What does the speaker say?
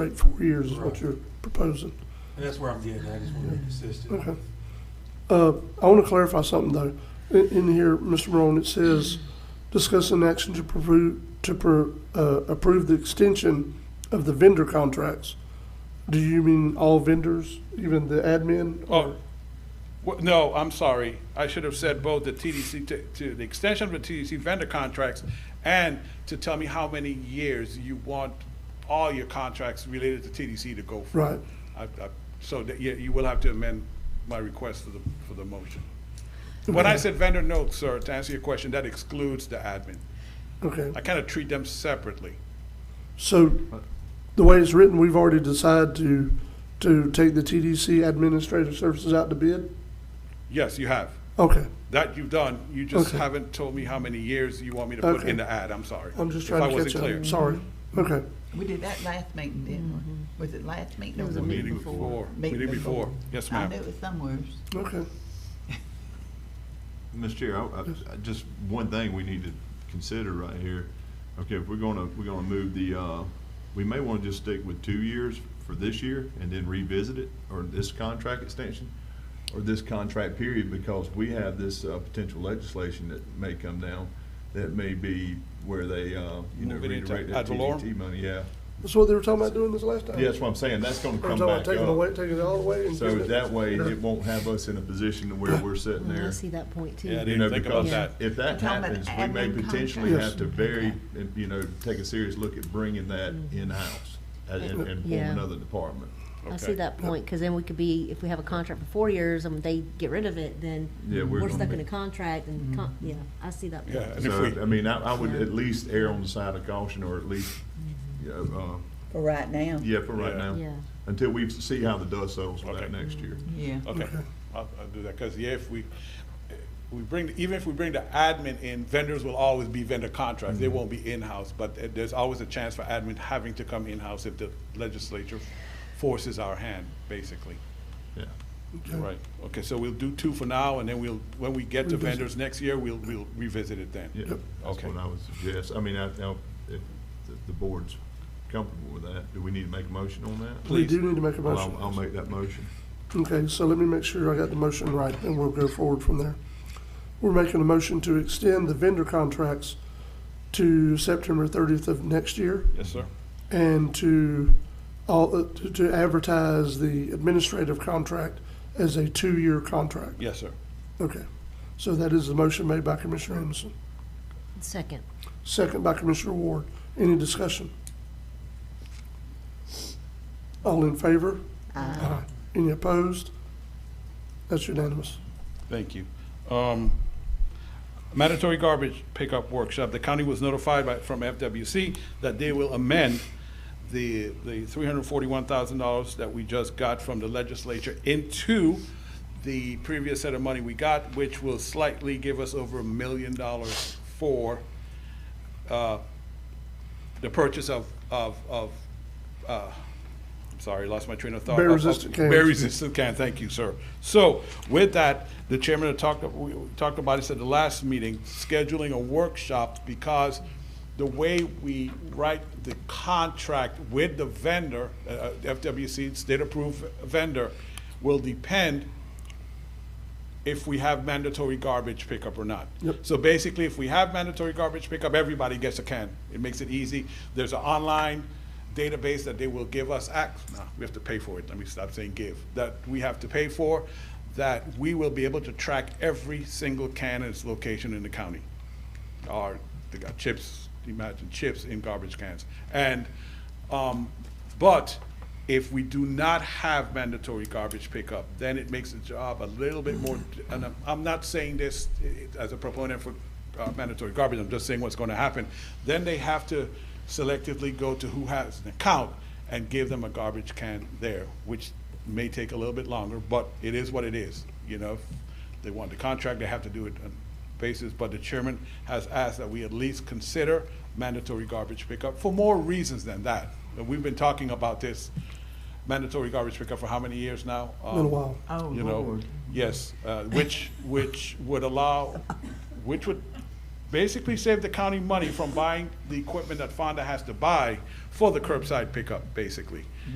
Right, four years is what you're proposing. And that's where I'm getting at, is we're consistent. Okay. Uh, I want to clarify something, though. In, in here, Mr. Morone, it says, discuss an action to approve, to pro- uh, approve the extension of the vendor contracts. Do you mean all vendors, even the admin? Oh, wha- no, I'm sorry. I should have said both the TDC, to- to the extension of the TDC vendor contracts and to tell me how many years you want all your contracts related to TDC to go for. Right. I- I- So that, you, you will have to amend my request for the, for the motion. When I said vendor, no, sir, to answer your question, that excludes the admin. Okay, I kind of treat them separately. so the way it's written, we've already decided to, to take the TDC administrative services out to bid? Yes, you have. Okay, That you've done, you just Okay. haven't told me how many years you want me to put Okay. in the ad, I'm sorry. I'm just if I trying to wasn't catch up. clear. Sorry. Okay, We did that last meeting, didn't we? Was it last meeting? or The meeting before, meeting before, yes, I ma'am. knew it was somewhere. okay. Mr. Chair, I, I- I, just one thing we need to consider right here. Okay, if we're gonna, we're gonna move the, uh, we may wanna just stick with two years for this year and then revisit it, or this contract extension, or this contract period, because we have this, uh, potential legislation that may come down, that may be where they, uh, you know, Move it into redirect ad that valorem? TDT money, yeah. That's what they were talking about doing this last time? Yeah, that's what I'm saying, that's gonna Or come talking about back taking away, up. taking it all away? and So giving it- that way, Yeah. it won't have us in a position to where we're sitting Well, Mm, I there see that point too. Yeah, I You know, didn't think about because that. If that You're talking about happens, we may admin potentially contracts. have to very, you know, take a serious look at bringing that in-house and, and and form Yeah. another department. I see Okay. that point, because then we could be, if we have a contract for four years and they get rid of it, then Yeah, we're we're gonna stuck in be- a contract and, con- yeah, I see that Yeah, point. and if So, I we, mean, I, I would at least err on the side of caution or at least, you know, For right now. uh, yeah, for right Yeah. Yeah. now. Until we see how the dust settles for Okay. that next year. Yeah. okay, I'll, I'll do that, because yeah, if we, we bring, even if we bring the admin in, vendors will always be vendor contracts. They won't be in-house, but uh, there's always a chance for admin having to come in-house if the legislature forces our hand, basically. Yeah. Right, okay, so we'll do two for now, and then we'll, when we get to Revisit. vendors next year, we'll, we'll revisit it then. Yeah. That's Okay. what I would suggest. I mean, I, now, if the, the board's comfortable with that, do we need to make a motion on that? We do need to make a Well, motion. I'll, I'll make that motion. Okay, so let me make sure I got the motion right, and we'll go forward from there. We're making a motion to extend the vendor contracts to September thirtieth of next year, Yes, sir. and to all, uh, to- to advertise the administrative contract as a two-year contract. Yes, sir. Okay, so that is the motion made by Commissioner Anderson, Second, second by Commissioner Ward. Any discussion? All in favor? Uh, Any opposed? That's unanimous. Thank you. Um, Mandatory garbage pickup workshop, the county was notified by, from FWC that they will amend the, the three hundred forty-one thousand dollars that we just got from the legislature into the previous set of money we got, which will slightly give us over a million dollars for, uh, the purchase of, of, of, uh, I'm sorry, lost my train of thought. Bear Of- of- resistant cans. Bear resistant can, thank you, sir. So with that, the chairman had talked, we talked about this at the last meeting, scheduling a workshop because the way we write the contract with the vendor, uh, uh, FWC, state-approved vendor, will depend if we have mandatory garbage pickup or not. Yep. So basically, if we have mandatory garbage pickup, everybody gets a can. It makes it easy. There's an online database that they will give us ac no, we have to pay for it. Let me stop saying give. That we have to pay for, that we will be able to track every single can and its location in the county. Or they got chips, imagine chips in garbage cans. And, um, but if we do not have mandatory garbage pickup, then it makes the job a little bit more, and I'm, I'm not saying this eh, as a proponent for uh, mandatory garbage, I'm just saying what's gonna happen. Then they have to selectively go to who has an account and give them a garbage can there, which may take a little bit longer, but it is what it is, you know? If They want the contract, they have to do it on basis, but the chairman has asked that we at least consider mandatory garbage pickup for more reasons than that. And We've been talking about this mandatory garbage pickup for how many years now? Um, Been a while. Oh, you know, Lord. Yes, uh, which, which would allow, which would basically save the county money from buying the equipment that Fonda has to buy for the curbside pickup, basically.